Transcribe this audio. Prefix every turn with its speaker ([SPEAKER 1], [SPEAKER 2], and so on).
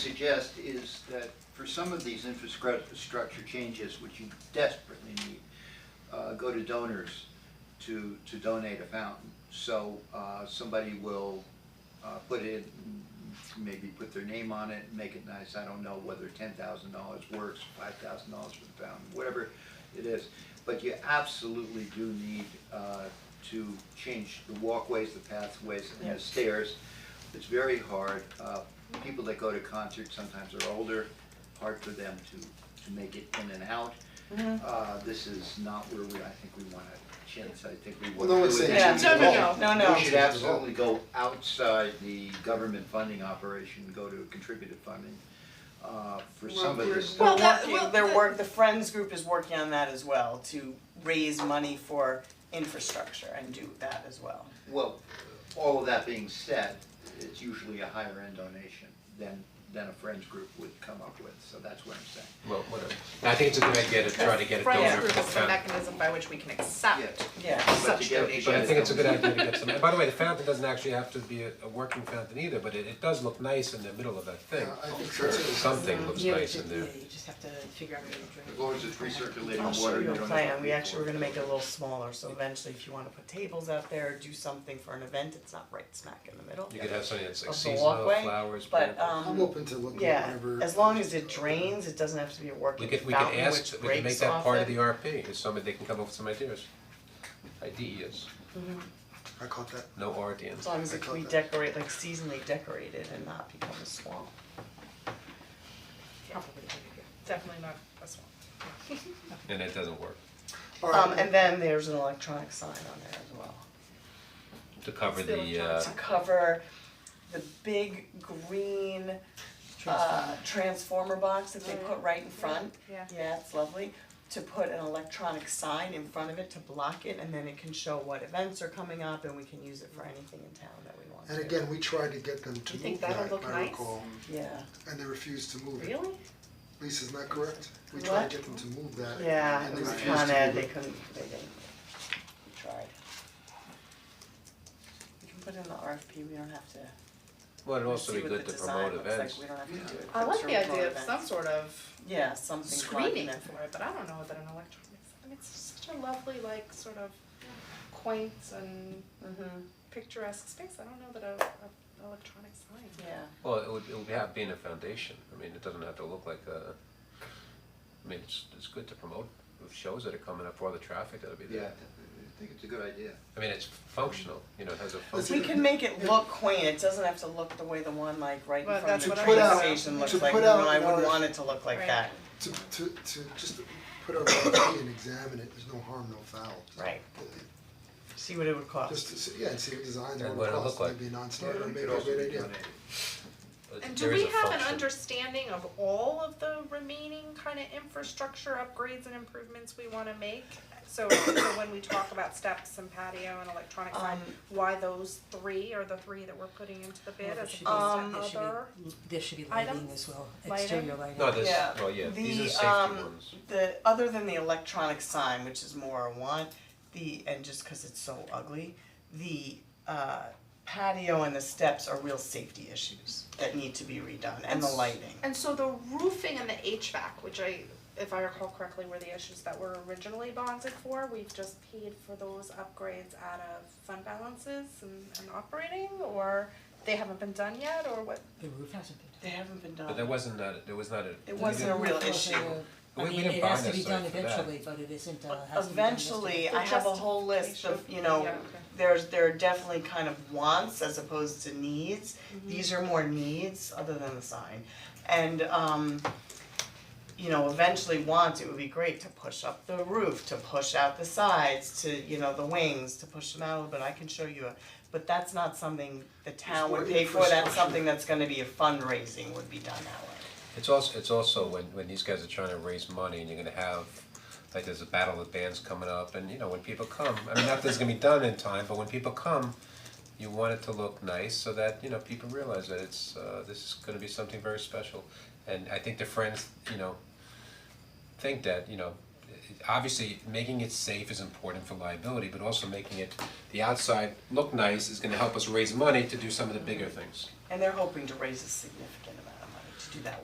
[SPEAKER 1] suggest is that for some of these infrastructure changes, which you desperately need, uh, go to donors to, to donate a fountain. So, uh, somebody will, uh, put it, maybe put their name on it, make it nice, I don't know whether ten thousand dollars works, five thousand dollars for the fountain, whatever it is. But you absolutely do need, uh, to change the walkways, the pathways, and the stairs. It's very hard, uh, people that go to concerts sometimes are older, hard for them to, to make it in and out.
[SPEAKER 2] Mm-hmm.
[SPEAKER 1] Uh, this is not where we, I think we wanna chance, I think we
[SPEAKER 3] Well,
[SPEAKER 1] want
[SPEAKER 3] no
[SPEAKER 1] to.
[SPEAKER 3] one's saying
[SPEAKER 2] Yeah, no, no, no, no, no.
[SPEAKER 1] We should absolutely go outside the government funding operation, go to contributed funding, uh, for some of this
[SPEAKER 2] They're
[SPEAKER 4] Well,
[SPEAKER 1] stuff.
[SPEAKER 4] that-
[SPEAKER 2] working,
[SPEAKER 4] well,
[SPEAKER 2] they're
[SPEAKER 4] the-
[SPEAKER 2] work, the Friends group is working on that as well, to raise money for infrastructure and do that as well.
[SPEAKER 1] Well, all of that being said, it's usually a higher end donation than, than a friends group would come up with, so that's what I'm saying.
[SPEAKER 5] well, whatever. And I think it's a good idea to try to get a
[SPEAKER 4] Friends
[SPEAKER 5] donor
[SPEAKER 4] group
[SPEAKER 5] for the
[SPEAKER 4] is the
[SPEAKER 5] fountain.
[SPEAKER 4] mechanism by which we can
[SPEAKER 6] Ah,
[SPEAKER 4] accept
[SPEAKER 1] Yeah.
[SPEAKER 2] Yeah.
[SPEAKER 1] But
[SPEAKER 4] such
[SPEAKER 1] to get-
[SPEAKER 4] donations.
[SPEAKER 5] But I think it's a good idea to get some, and by the way, the fountain doesn't actually have to be a, a working fountain either, but it, it does look nice in the middle of that thing.
[SPEAKER 3] I think so too.
[SPEAKER 5] Something looks
[SPEAKER 7] Yeah,
[SPEAKER 5] nice
[SPEAKER 7] you
[SPEAKER 5] in
[SPEAKER 7] ju-
[SPEAKER 5] there.
[SPEAKER 7] yeah, you just have to figure out how to
[SPEAKER 1] As
[SPEAKER 7] do it.
[SPEAKER 1] long as it's
[SPEAKER 2] I'll
[SPEAKER 1] recirculating
[SPEAKER 2] show
[SPEAKER 1] water, you
[SPEAKER 2] you a
[SPEAKER 1] don't have to
[SPEAKER 2] plan, we
[SPEAKER 1] pay
[SPEAKER 2] actually,
[SPEAKER 1] for
[SPEAKER 2] we're
[SPEAKER 1] it.
[SPEAKER 2] gonna make it a little smaller, so eventually if you wanna put tables out there, do something for an event, it's not right smack in the middle
[SPEAKER 5] You could have something that's like
[SPEAKER 2] of the
[SPEAKER 5] seasonal,
[SPEAKER 2] walkway,
[SPEAKER 5] flowers,
[SPEAKER 2] but
[SPEAKER 5] planters.
[SPEAKER 2] um.
[SPEAKER 3] I'm open to looking at
[SPEAKER 2] Yeah,
[SPEAKER 3] whatever.
[SPEAKER 2] as long as it drains, it doesn't have to be a
[SPEAKER 5] We
[SPEAKER 2] working
[SPEAKER 5] could, we could
[SPEAKER 2] fountain
[SPEAKER 5] ask,
[SPEAKER 2] which
[SPEAKER 5] we could make
[SPEAKER 2] breaks
[SPEAKER 5] that
[SPEAKER 2] off
[SPEAKER 5] part of
[SPEAKER 2] it.
[SPEAKER 5] the RP, if somebody, they can come up with some ideas. Ideas,
[SPEAKER 3] Mm-hmm. I caught that.
[SPEAKER 5] no RD in.
[SPEAKER 2] As long as it can be decorate, like seasonally decorated and not become a swamp.
[SPEAKER 4] Probably, definitely not a swamp.
[SPEAKER 5] and it doesn't work,
[SPEAKER 2] Um,
[SPEAKER 3] Alright,
[SPEAKER 2] and then there's an electronic sign on there as well.
[SPEAKER 5] to cover
[SPEAKER 4] Still in
[SPEAKER 5] the uh,
[SPEAKER 4] charge.
[SPEAKER 2] To cover the big green uh transformer box that they put right in
[SPEAKER 4] Mm-hmm.
[SPEAKER 2] front.
[SPEAKER 4] Yeah.
[SPEAKER 2] Yeah, it's lovely. To put an electronic sign in front of it to block it and then it can show what events are coming up and we can use it for anything in town that we want to.
[SPEAKER 3] and again, we tried to get them to
[SPEAKER 4] You
[SPEAKER 3] move
[SPEAKER 4] think that'll
[SPEAKER 3] that,
[SPEAKER 4] look
[SPEAKER 3] I
[SPEAKER 4] nice?
[SPEAKER 3] recall,
[SPEAKER 2] Yeah,
[SPEAKER 3] and they refused to move it.
[SPEAKER 4] Really?
[SPEAKER 3] Lisa's not correct? We tried to get them to move that,
[SPEAKER 2] yeah,
[SPEAKER 3] and
[SPEAKER 2] it
[SPEAKER 3] they
[SPEAKER 2] was
[SPEAKER 3] refused to move it.
[SPEAKER 2] Con Ed, they couldn't, they didn't, we tried. We can put in the RFP, we don't have to,
[SPEAKER 5] Well, it'd
[SPEAKER 2] we
[SPEAKER 5] also
[SPEAKER 2] see
[SPEAKER 5] be
[SPEAKER 2] what the
[SPEAKER 5] good to
[SPEAKER 2] design
[SPEAKER 5] promote
[SPEAKER 2] looks like,
[SPEAKER 5] events.
[SPEAKER 2] we don't have to do it.
[SPEAKER 4] I
[SPEAKER 2] but
[SPEAKER 4] like
[SPEAKER 2] to
[SPEAKER 4] the
[SPEAKER 2] promote
[SPEAKER 4] idea of
[SPEAKER 2] events.
[SPEAKER 4] some sort of
[SPEAKER 2] Yeah, something
[SPEAKER 4] screening
[SPEAKER 2] prominent.
[SPEAKER 4] for it, but I don't know that an electronic, I mean, it's such a lovely, like, sort of quaint and
[SPEAKER 2] Mhm,
[SPEAKER 4] picturesque space, I don't know that a, a electronic sign.
[SPEAKER 2] yeah.
[SPEAKER 5] Well, it would, it would have been a foundation, I mean, it doesn't have to look like a, I mean, it's, it's good to promote shows that are coming up, all the traffic that'll be
[SPEAKER 1] Yeah, I
[SPEAKER 5] there.
[SPEAKER 1] think it's a good idea.
[SPEAKER 5] I mean, it's functional, you know, it has a
[SPEAKER 3] Let's
[SPEAKER 5] function.
[SPEAKER 2] We can make it look quaint, it doesn't have to look the way the one like right in
[SPEAKER 4] Well,
[SPEAKER 2] front of
[SPEAKER 4] that's
[SPEAKER 2] the
[SPEAKER 4] what I
[SPEAKER 2] train
[SPEAKER 4] was-
[SPEAKER 2] station looks
[SPEAKER 3] to
[SPEAKER 2] like,
[SPEAKER 3] put
[SPEAKER 2] no,
[SPEAKER 3] out
[SPEAKER 2] I
[SPEAKER 3] an
[SPEAKER 2] wouldn't
[SPEAKER 3] RF
[SPEAKER 2] want it to look like
[SPEAKER 4] Right.
[SPEAKER 2] that,
[SPEAKER 3] To to to just put our RFP and examine it, there's no harm, no foul.
[SPEAKER 2] Right. see what it would
[SPEAKER 3] Just
[SPEAKER 2] cost.
[SPEAKER 3] to see, yeah, and see what designs are
[SPEAKER 5] And what
[SPEAKER 3] what it
[SPEAKER 5] it'll
[SPEAKER 3] costs,
[SPEAKER 5] look like.
[SPEAKER 3] maybe a non-starter,
[SPEAKER 1] It
[SPEAKER 3] maybe a
[SPEAKER 1] could
[SPEAKER 3] good idea.
[SPEAKER 1] also be donated.
[SPEAKER 5] But
[SPEAKER 6] And do
[SPEAKER 5] there is
[SPEAKER 6] we
[SPEAKER 5] a
[SPEAKER 6] have an
[SPEAKER 5] function.
[SPEAKER 6] understanding of all of the remaining kind of infrastructure upgrades and improvements we wanna make? So, so when we talk about steps and patio and electronic sign,
[SPEAKER 2] Um,
[SPEAKER 6] why those three are the three that we're putting into the bid
[SPEAKER 7] Well, there
[SPEAKER 6] as
[SPEAKER 7] should be-
[SPEAKER 2] Um,
[SPEAKER 6] opposed
[SPEAKER 7] there
[SPEAKER 6] to other?
[SPEAKER 7] should be- There should be
[SPEAKER 6] items?
[SPEAKER 7] lighting as well, exterior lighting.
[SPEAKER 5] No, there's,
[SPEAKER 2] Yeah.
[SPEAKER 5] well, yeah, these are
[SPEAKER 2] The,
[SPEAKER 5] safety
[SPEAKER 2] um,
[SPEAKER 5] ones.
[SPEAKER 2] The, other than the electronic sign, which is more a want, the, and just cause it's so ugly, the uh patio and the steps are real safety issues that need to be redone, and the lighting.
[SPEAKER 6] And so the roofing and the HVAC, which I, if I recall correctly, were the issues that were originally bonded for, we've just paid for those upgrades out of fund balances and, and operating, or they haven't been done yet, or what?
[SPEAKER 7] The roof hasn't been done.
[SPEAKER 2] They haven't been done.
[SPEAKER 5] But there wasn't that, there was not a.
[SPEAKER 2] It wasn't a real
[SPEAKER 7] Roof was
[SPEAKER 2] issue.
[SPEAKER 7] a-
[SPEAKER 5] We-
[SPEAKER 7] I
[SPEAKER 5] we
[SPEAKER 7] mean,
[SPEAKER 5] didn't
[SPEAKER 7] it
[SPEAKER 5] buy
[SPEAKER 7] has to be
[SPEAKER 5] necessarily
[SPEAKER 7] done
[SPEAKER 5] for that.
[SPEAKER 7] eventually, but it isn't, uh, hasn't been done
[SPEAKER 2] Eventually,
[SPEAKER 7] yesterday.
[SPEAKER 2] I have a whole list of, you know, there's, there are definitely kind of wants as opposed to needs.
[SPEAKER 3] Mm-hmm.
[SPEAKER 2] These are more needs, other than the sign. And, um, you know, eventually wants, it would be great to push up the roof, to push out the sides, to, you know, the wings, to push them out a little bit. I can show you a, but that's not something the town would
[SPEAKER 3] more
[SPEAKER 2] pay for. That's
[SPEAKER 3] infrastructure.
[SPEAKER 2] something that's gonna be a fundraising would be done that way.
[SPEAKER 5] It's also, it's also when, when these guys are trying to raise money and you're gonna have, like, there's a battle of bands coming up and, you know, when people come, I mean, not that it's gonna be done in time, but when people come, you want it to look nice so that, you know, people realize that it's, uh, this is gonna be something very special. And I think the friends, you know, think that, you know, it- obviously making it safe is important for liability, but also making it, the outside look nice is gonna help us raise money to do some of the bigger things.
[SPEAKER 2] And they're hoping to raise a significant amount of money to do that